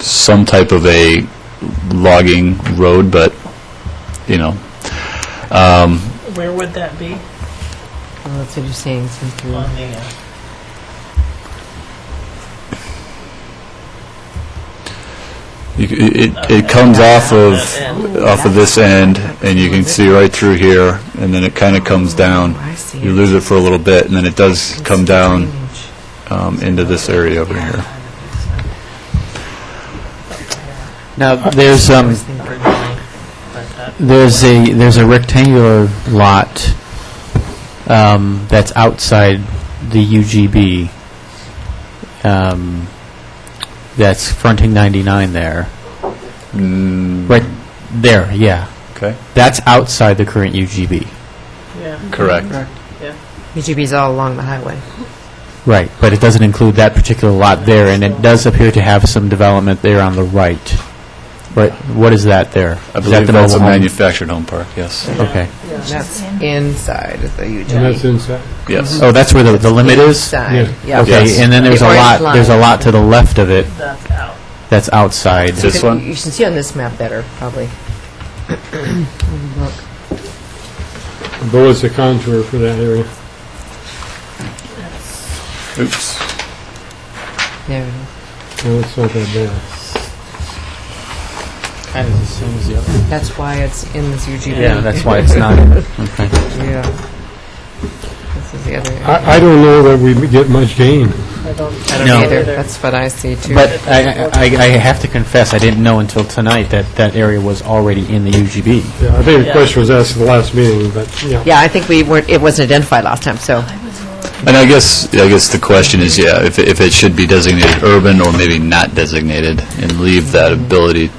some type of a logging road, but, you know, um, Where would that be? Well, that's what you're saying, since On the, you're uh, you c- it, it comes off of, that end? off of this end, and you can see right through here, and then it kind of comes down. I see You it. lose it for a little bit, and then it does It's come the down drainage. um, into this area over here. Now, there's, I um, was thinking- Or going, but that- there's a, there's a rectangular lot um, that's outside the UGB um, that's fronting 99 there. Mm, Right there, yeah. Okay, That's outside the current UGB. Yeah, correct. UGB's E all along the highway. Right, but it doesn't include that particular lot there, and it does appear to have some development there on the right. Right, what is that there? I Is that believe the that's a mobile home? manufactured home park, yes. Okay. That's inside of the UGB. And that's inside. Yes, Oh, that's where the, the limit is? Inside, yeah. Okay, Yes. and then there's a The orange lot, there's a line. lot to the left of it that's out. that's outside. This So one? You should see on this map better, probably. Below is the contour for that area. oops. There it is. No, it's not that bad. Kind of the same as the other. That's why it's in this UGB. Yeah, that's why it's not, okay. Yeah. This is the other. area. I, I don't know that we get much gain. I don't. I don't No. either. That's what I see too. But I, I- I I have to confess, I didn't know until tonight that that area was already in the UGB. Yeah, I think Yeah. the question was asked at the last meeting, but, yeah. yeah, I think we weren't. It wasn't identified last time, so And I guess, I guess the question is, yeah, if, if it should be designated urban or maybe not designated, and leave that ability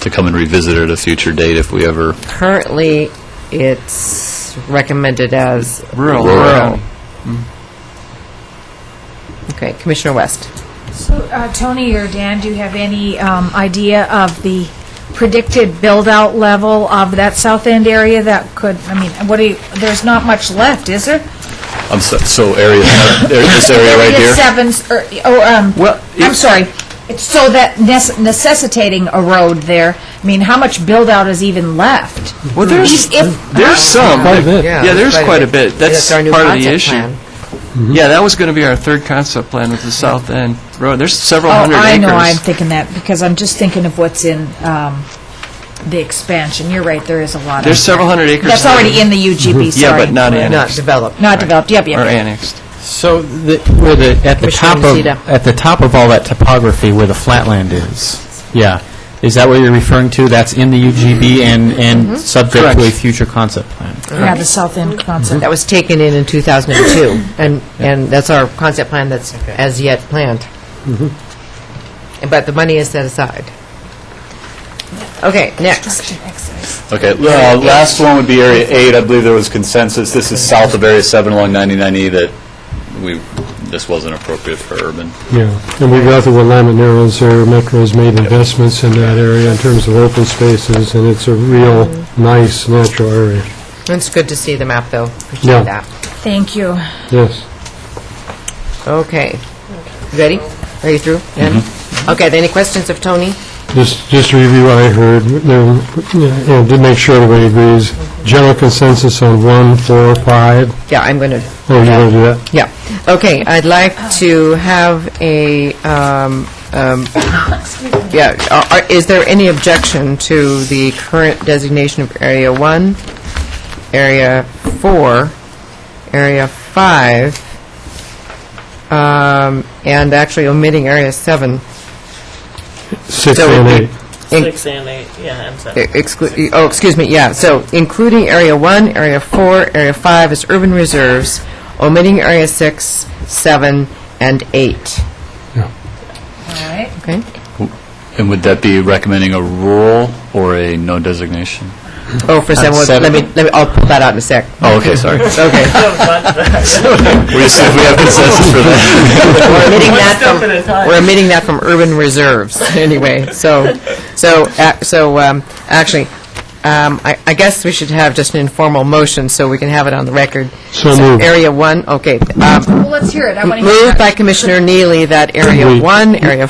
to come and revisit at a future date if we ever, currently it's recommended as Rural. Rural. Okay, Commissioner West. So, uh, Tony or Dan, do you have any um, idea of the predicted build-out level of that south end area that could, I mean, what do you, there's not much left, is there? I'm so, so area, there- this area right Area here? sevens, or, oh, Well, um, it- I'm sorry, It's so that necess- necessitating a road there, I mean, how much build-out is even left? Well, there's, If- if- there's some. Quite a bit. Yeah, there's quite a bit. That's our new part of the concept issue. plan. Yeah, that was going to be our third concept plan with the South End Road. There's several Oh, hundred acres. I know, I'm thinking that, because I'm just thinking of what's in um, the expansion. You're right, there is a lot of... There's several hundred acres. That's that already in the UGB, sorry. Yeah, but not in. Not developed. Not developed, yep, yep, Are yep. annexed. So, the- where the, at Commissioner the top of, Nocita. at the top of all that topography where the flatland is, yeah, is that what you're referring to? That's in the UGB and, and subject to a Correct. future concept plan? Yeah, the South End concept. That was taken in in 2002, and, and that's our concept plan that's as yet planned. And- But the money is set aside. Okay, next. Okay, uh, last one would be Area 8, I believe there was consensus, this is south of Area 7 along 99E, that we, this wasn't appropriate for urban. Yeah, and we got the Willamette Narrows there, Metro's made investments in that area in terms of open spaces, and it's a real nice natural area. It's good to see the map, though. Yeah. Appreciate that. Thank you. Yes. Okay. You ready? Are you through? Ann? Okay, any questions of Tony? Just, just to review what I heard, no, yeah, and to make sure everybody agrees, general consensus on one, four, five. Yeah, I'm going to, Oh, you want to do that? yeah. Okay, I'd like to have a, um, um, yeah, are- are- is there any objection to the current designation of Area 1, Area 4, Area 5, um, and actually omitting Area 7? Six So and we- eight. In- Six and eight, yeah, and seven. Exclu- oh, excuse me, yeah, so including Area 1, Area 4, Area 5 as urban reserves, omitting Area 6, 7, and 8, All right. okay? And would that be recommending a rural or a no designation? Oh, for someone, let seven. me, let me, I'll pull that out in a sec. Oh, okay, sorry. Okay. We just, we have consensus for that. We're omitting that Step from, at a time. we're omitting that from urban reserves, anyway, so, so, ac- so, um, actually, um, I, I guess we should have just an informal motion, so we can have it on the record. So moved. Area 1, okay, um, Well, let's hear it. I want to hear it. moved by Commissioner Neely that Area Wait. 1, Area